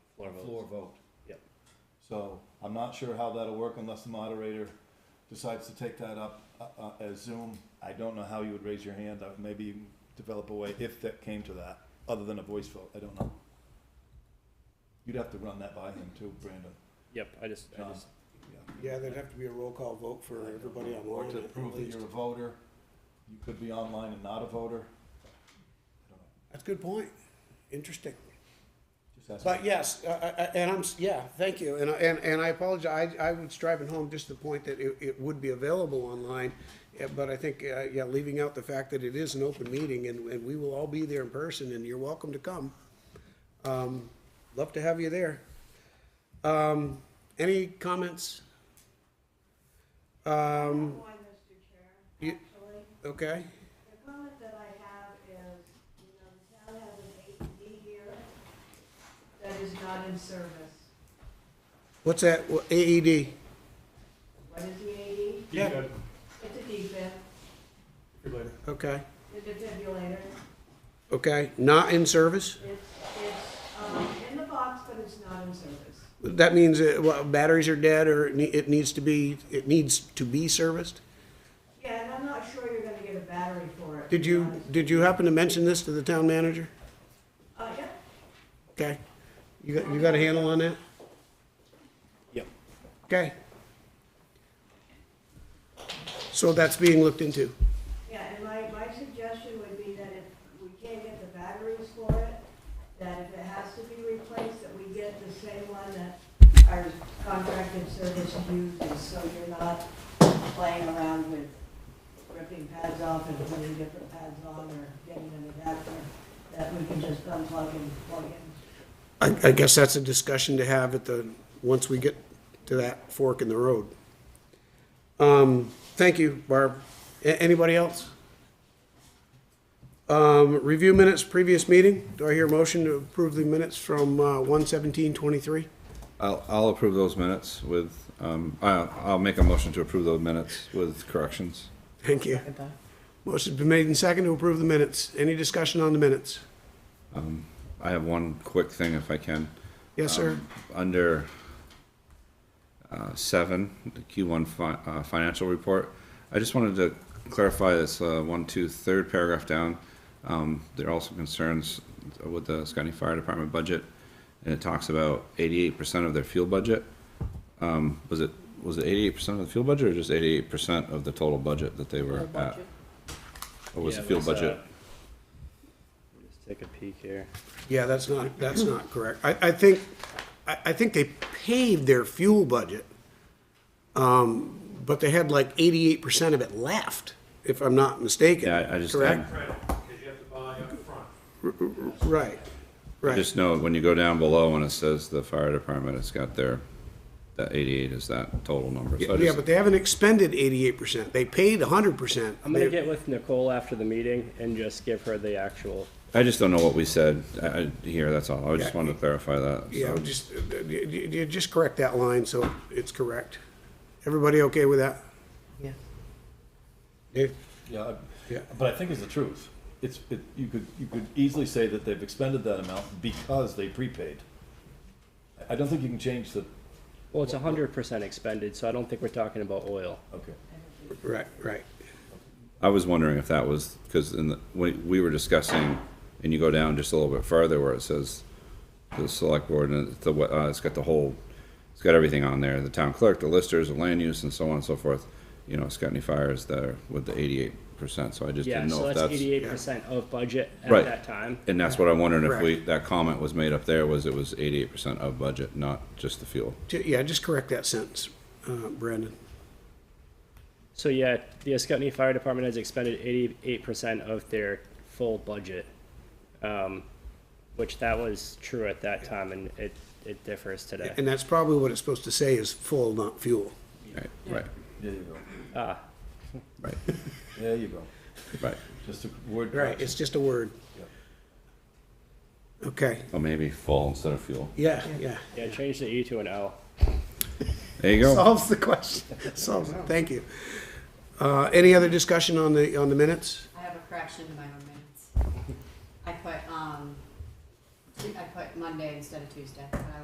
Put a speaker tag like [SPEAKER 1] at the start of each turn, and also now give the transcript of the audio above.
[SPEAKER 1] Floor votes.
[SPEAKER 2] floor vote.
[SPEAKER 1] Yep.
[SPEAKER 2] So I'm not sure how that'll work unless the moderator decides to take that up uh, uh, as Zoom. I don't know how you would raise your hand. I- Maybe you can develop a way if that came to that, other than a voice vote. I don't know. You'd have to run that by him too, Brandon.
[SPEAKER 1] Yep, I just, I
[SPEAKER 2] John.
[SPEAKER 1] just,
[SPEAKER 2] Yeah.
[SPEAKER 3] Yeah, there'd have to be a roll call vote for everybody
[SPEAKER 2] Or
[SPEAKER 3] online.
[SPEAKER 2] uh, to
[SPEAKER 3] at
[SPEAKER 2] prove that
[SPEAKER 3] least.
[SPEAKER 2] you're a voter. You could be online and not a voter. I don't know.
[SPEAKER 3] That's a good point. Interesting.
[SPEAKER 2] Just ask
[SPEAKER 3] But
[SPEAKER 2] him.
[SPEAKER 3] yes, I- I- I- and I'm, s- yeah, thank you. And, I- and, and I apologize, I, I was driving home just the point that it, it would be available online. eh, But I think, uh, yeah, leaving out the fact that it is an open meeting and, and we will all be there in person and you're welcome to come. Um, Love to have you there. Um, Any comments? Um,
[SPEAKER 4] One, Mr. Chair,
[SPEAKER 3] you-
[SPEAKER 4] actually.
[SPEAKER 3] Okay,
[SPEAKER 4] The comment that I have is, you know, the town has an AED here that is not in service.
[SPEAKER 3] what's that, Wha- E AED?
[SPEAKER 4] What is the AED?
[SPEAKER 3] Yeah.
[SPEAKER 4] It's a defib,
[SPEAKER 3] Okay,
[SPEAKER 4] it's a defibrillator.
[SPEAKER 3] okay, not in service?
[SPEAKER 4] It's, it's, um, in the box, but it's not in service.
[SPEAKER 3] That means uh, well, batteries are dead, or it ne- it needs to be, it needs to be serviced?
[SPEAKER 4] Yeah, and I'm not sure you're gonna get a battery for it. to
[SPEAKER 3] Did
[SPEAKER 4] be
[SPEAKER 3] you,
[SPEAKER 4] honest.
[SPEAKER 3] did you happen to mention this to the town manager?
[SPEAKER 4] Uh, yeah,
[SPEAKER 3] Okay, you got, you got a handle on that?
[SPEAKER 1] Yep.
[SPEAKER 3] Okay. So that's being looked into.
[SPEAKER 4] yeah, and my, my suggestion would be that if we can't get the batteries for it, that if it has to be replaced, that we get the same one that our contracted service uses, so you're not playing around with ripping pads off and putting different pads on or getting an adapter that we can just unplug and plug in.
[SPEAKER 3] I, I guess that's a discussion to have at the, once we get to that fork in the road. Um, thank you, Barb. A- anybody else? Um, review minutes, previous meeting. Do I hear a motion to approve the minutes from, uh, one seventeen twenty-three?
[SPEAKER 5] I'll, I'll approve those minutes with, um, I, I'll make a motion to approve those minutes with corrections.
[SPEAKER 3] Thank you. Motion's been made and second to approve the minutes. Any discussion on the minutes?
[SPEAKER 5] I have one quick thing if I can.
[SPEAKER 3] Yes, sir.
[SPEAKER 5] Under, uh, seven, the Q one fi- uh, financial report, I just wanted to clarify this, uh, one, two, third paragraph down. Um, there are also concerns with the Scotty Fire Department budget, and it talks about eighty-eight percent of their fuel budget. Um, was it, was it eighty-eight percent of the fuel budget or just eighty-eight percent of the total budget that they were at? Or was
[SPEAKER 1] yeah,
[SPEAKER 5] the fuel
[SPEAKER 1] let's, uh,
[SPEAKER 5] budget?
[SPEAKER 1] let me Just take a peek here.
[SPEAKER 3] Yeah, that's not, that's not correct. I, I think, I, I think they paid their fuel budget. Um, but they had like eighty-eight percent of it left, if I'm not mistaken.
[SPEAKER 5] Yeah, I- I just-
[SPEAKER 3] Correct?
[SPEAKER 6] credit, because you have to buy upfront.
[SPEAKER 3] Right, right.
[SPEAKER 5] Just know when you go down below and it says the fire department, it's got their, that eighty-eight is that total number. So I
[SPEAKER 3] Yeah,
[SPEAKER 5] just-
[SPEAKER 3] but they haven't expended eighty-eight percent. They paid hundred percent.
[SPEAKER 1] I'm gonna get with Nicole after the meeting and just give her the actual,
[SPEAKER 5] I just don't know what we said I- I- here, that's all. I just
[SPEAKER 3] Yeah.
[SPEAKER 5] wanted to clarify that.
[SPEAKER 3] Yeah,
[SPEAKER 5] so.
[SPEAKER 3] just, uh, you, you- you just correct that line so it's correct. Everybody okay with that?
[SPEAKER 7] Yeah.
[SPEAKER 3] Dave?
[SPEAKER 2] Yeah, I-
[SPEAKER 3] Yeah.
[SPEAKER 2] but I think it's the truth. It's, it, you could, you could easily say that they've expended that amount because they prepaid. I- I don't think you can change the,
[SPEAKER 1] well, it's hundred percent expended, so I don't think we're talking about oil.
[SPEAKER 2] okay.
[SPEAKER 3] Right, right.
[SPEAKER 5] I was wondering if that was, because in the, we, we were discussing, and you go down just a little bit further where it says the select board, and it's the, uh, it's got the whole, it's got everything on there, the town clerk, the listers, the land use, and so on and so forth. You know, it's got any fires there with the eighty-eight percent, so I just
[SPEAKER 1] Yeah,
[SPEAKER 5] didn't
[SPEAKER 1] so
[SPEAKER 5] know if
[SPEAKER 1] that's
[SPEAKER 5] that's.
[SPEAKER 1] eighty-eight percent of budget at
[SPEAKER 5] Right.
[SPEAKER 1] that time.
[SPEAKER 5] And that's what I'm wondering if
[SPEAKER 3] Correct.
[SPEAKER 5] we, that comment was made up there, was it was eighty-eight percent of budget, not just the fuel.
[SPEAKER 3] Ju- Yeah, just correct that sentence, uh, Brandon.
[SPEAKER 1] So yeah, the Ascutney Fire Department has expended eighty-eight percent of their full budget, um, which that was true at that time, and it, it differs today.
[SPEAKER 3] And that's probably what it's supposed to say is full, not fuel.
[SPEAKER 5] Right, right,
[SPEAKER 2] There you go.
[SPEAKER 1] Ah,
[SPEAKER 5] right,
[SPEAKER 2] There you go.
[SPEAKER 5] right.
[SPEAKER 2] Just a word.
[SPEAKER 3] It's just a word.
[SPEAKER 2] Yep.
[SPEAKER 3] Okay,
[SPEAKER 5] Or maybe full instead of fuel.
[SPEAKER 3] yeah, yeah.
[SPEAKER 1] yeah, change the E to an L.
[SPEAKER 5] There you go.
[SPEAKER 3] Solves the question, solves, it. thank you. Uh, any other discussion on the, on the minutes?
[SPEAKER 7] I have a correction in my own minutes. I put, um, I put Monday instead of Tuesday, but I